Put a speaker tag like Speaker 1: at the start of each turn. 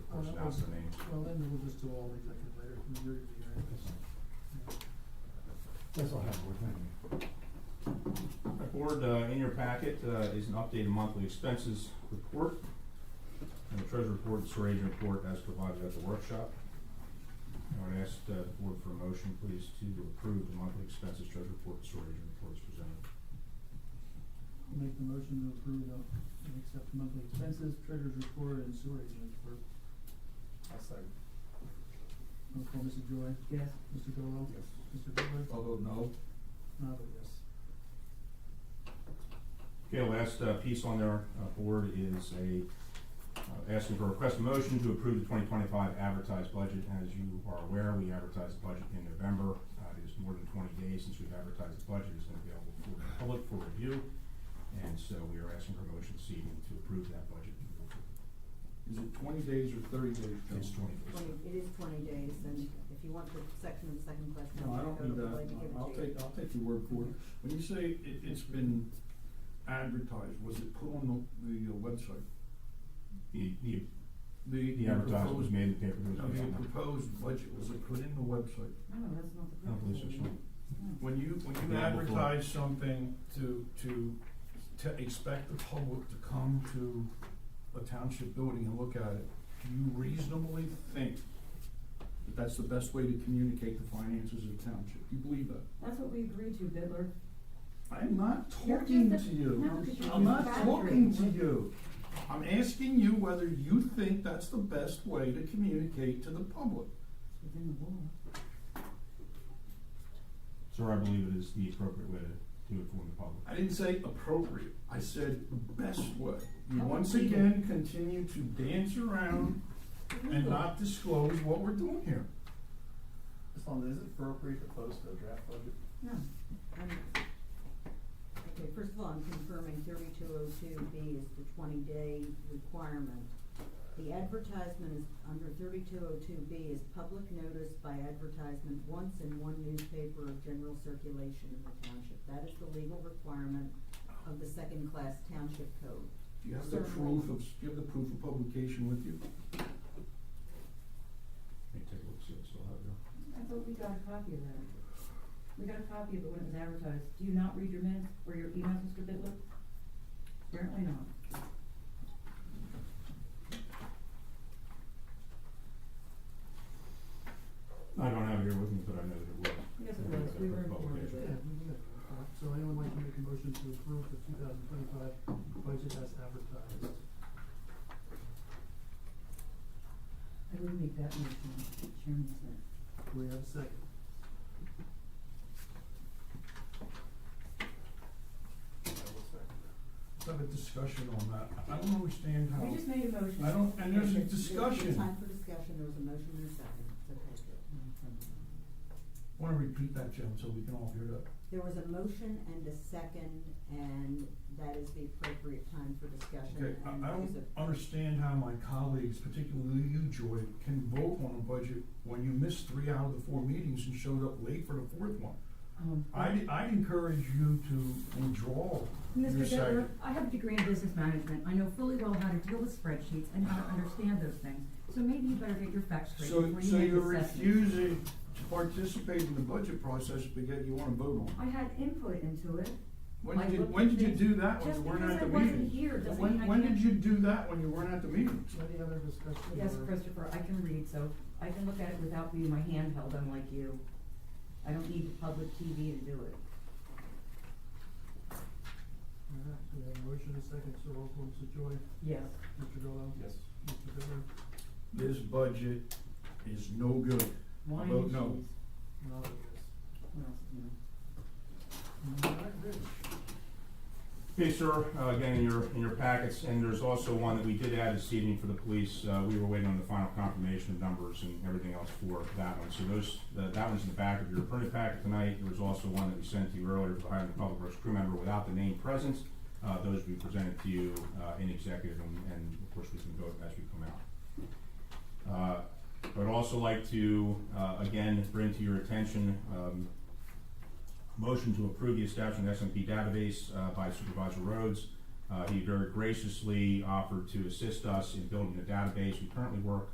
Speaker 1: pronounce the names.
Speaker 2: Well, then we'll just do all executive later, I mean, you're gonna be here anyways.
Speaker 3: That's all I have, Board. thank you.
Speaker 1: All right, Board, uh, in your packet uh, is an updated monthly expenses report, and the treasurer report, and serrating report as provided at the workshop. I would ask uh, the board for a motion, please, to approve the monthly expenses, treasurer report, and serrating report as presented.
Speaker 2: Make the motion to approve of, and accept monthly expenses, treasurer's report, and sewer agent report.
Speaker 4: I'll second.
Speaker 2: Roll call, Mr. Joy.
Speaker 5: Yes.
Speaker 2: Mr. Gallow.
Speaker 4: Yes.
Speaker 2: Mr. Butler.
Speaker 3: Oh.
Speaker 4: I'll vote no.
Speaker 2: And I vote yes.
Speaker 1: Okay, last uh, piece on their uh, board is a, uh, asking for a request of motion to approve the twenty twenty-five advertised budget. As you are aware, we advertised the budget in November. Uh, It is more than twenty days since we've advertised the budget. It's been available for the public for review. And so we are asking for a motion this evening to approve that budget.
Speaker 4: Is it twenty days or thirty days, Joe?
Speaker 1: It's twenty days.
Speaker 5: Twenty, it is twenty days, and if you want the section of the second class
Speaker 4: No, I don't
Speaker 5: number, go to
Speaker 4: need
Speaker 5: the
Speaker 4: that.
Speaker 5: lady, give it to you.
Speaker 4: I'll take, I'll take your word for it. When you say it, it's been advertised, was it put on the, the uh, website?
Speaker 1: The, the-
Speaker 4: The,
Speaker 1: the advertisement was
Speaker 4: proposed-
Speaker 1: made in the paper. It was
Speaker 4: No,
Speaker 1: made
Speaker 4: the
Speaker 1: on the-
Speaker 4: proposed budget, was it put in the website?
Speaker 5: No, that's not the.
Speaker 1: I don't believe so,
Speaker 5: purpose.
Speaker 1: so.
Speaker 5: No.
Speaker 6: When you, when you
Speaker 1: Yeah, before.
Speaker 6: advertise something to, to, to expect the public to come to a township building and look at it, do you reasonably think
Speaker 4: That that's the best way to communicate the finances of the township. Do you believe that?
Speaker 5: That's what we agreed to, Bidler.
Speaker 4: I'm not
Speaker 5: You're
Speaker 4: talking
Speaker 5: just a-
Speaker 4: to you.
Speaker 5: no, 'cause you're
Speaker 4: I'm not
Speaker 5: just
Speaker 4: talking to
Speaker 5: flattering.
Speaker 4: you. I'm asking you whether you think that's the best way to communicate to the public.
Speaker 5: It's within the law.
Speaker 1: So I believe it is the appropriate way to do it for the public.
Speaker 4: I didn't say appropriate. I said the best way. You
Speaker 7: Mm-hmm.
Speaker 5: How
Speaker 4: once
Speaker 5: about we-
Speaker 4: again continue to dance around
Speaker 7: Mm-hmm.
Speaker 4: and
Speaker 5: Legal.
Speaker 4: not disclose what we're doing here.
Speaker 3: As long as it's appropriate to post a draft budget.
Speaker 5: No, I'm not. Hmm. Okay, first of all, I'm confirming thirty-two oh two B is the twenty-day requirement. The advertisement is, under thirty-two oh two B is public notice by advertisement once in one newspaper of general circulation in the township. That is the legal requirement of the second-class township code.
Speaker 4: Do you have the
Speaker 5: Certainly.
Speaker 4: proof of, do you have the proof of publication with you?
Speaker 1: Let me take a look, see if I still have it.
Speaker 7: I thought we got a copy of that. We got a copy of it when it was advertised. Do you not read your minutes or your emails, Mr. Bitler? Apparently not.
Speaker 1: I don't have it here with me, but I know that it was.
Speaker 7: Yes, it was. We were informed of
Speaker 1: Publication.
Speaker 2: Yeah,
Speaker 7: it.
Speaker 2: we can do that. Uh, So anyone like to make a motion to approve the two thousand twenty-five budget as advertised?
Speaker 7: I would make that motion, Chairman said.
Speaker 2: Do we have a second?
Speaker 6: Let's have a discussion on that? I don't understand how.
Speaker 7: We just made a motion.
Speaker 6: I don't, and there's a
Speaker 5: There's- There's
Speaker 6: discussion.
Speaker 5: time for discussion, there was a motion and a second, it's okay.
Speaker 6: Wanna repeat that, Jim, so we can all hear that?
Speaker 5: There was a motion and a second, and that is the appropriate time for
Speaker 6: Okay,
Speaker 5: discussion,
Speaker 6: I,
Speaker 5: and
Speaker 6: I
Speaker 5: there's
Speaker 6: don't
Speaker 5: a-
Speaker 6: understand how my colleagues, particularly you, Joy, can vote on a budget when you missed three out of the four meetings and showed up late for the fourth one.
Speaker 7: Um,
Speaker 6: I, I encourage you to withdraw your
Speaker 7: Mr. Bittler,
Speaker 6: second.
Speaker 7: I have a degree in business management. I know fully well how to deal with spreadsheets and how to understand those things. So maybe you better get your facts straight
Speaker 4: So,
Speaker 7: before you
Speaker 4: so
Speaker 7: make
Speaker 4: you're
Speaker 7: assessments.
Speaker 4: refusing to participate in the budget process, but yet you wanna vote on it?
Speaker 7: I had input into it.
Speaker 4: When
Speaker 7: I
Speaker 4: did you,
Speaker 7: looked
Speaker 4: when
Speaker 7: at
Speaker 4: did you
Speaker 7: things-
Speaker 4: do that when
Speaker 7: just
Speaker 4: you weren't
Speaker 7: because
Speaker 4: at the
Speaker 7: I
Speaker 4: meeting?
Speaker 7: wasn't here doesn't
Speaker 4: When-
Speaker 7: mean I
Speaker 4: When
Speaker 7: can't-
Speaker 4: did you do that when you weren't at the meetings?
Speaker 2: Any other discussion?
Speaker 7: Yes,
Speaker 2: or-
Speaker 7: Christopher, I can read, so I can look at it without being my hand held unlike you. I don't need the public TV to do it.
Speaker 2: All right, we have a motion and a second, so roll call, Mr. Joy,
Speaker 7: Yes.
Speaker 2: Mr. Gallow.
Speaker 4: Yes.
Speaker 2: Mr. Bittler,
Speaker 4: This budget is no good.
Speaker 7: Wine
Speaker 4: Vote
Speaker 7: and
Speaker 4: no.
Speaker 7: cheese.
Speaker 2: and I'll vote yes.
Speaker 7: What else do you know?
Speaker 2: All right, Rich.
Speaker 1: Okay, sir, uh, again, in your, in your packets, and there's also one that we did add this evening for the police. Uh, We were waiting on the final confirmation of numbers and everything else for that one. So those, the- that one's in the back of your printed packet tonight. There was also one that we sent to you earlier for hiring a public works crew member without the name present. Uh, Those we presented to you uh, in executive, and and of course, we can vote as we come out. Uh, I would also like to, uh, again, bring to your attention um, motion to approve the establishment of SMP database uh, by Supervisor Rhodes. Uh, He very graciously offered to assist us in building the database. We currently work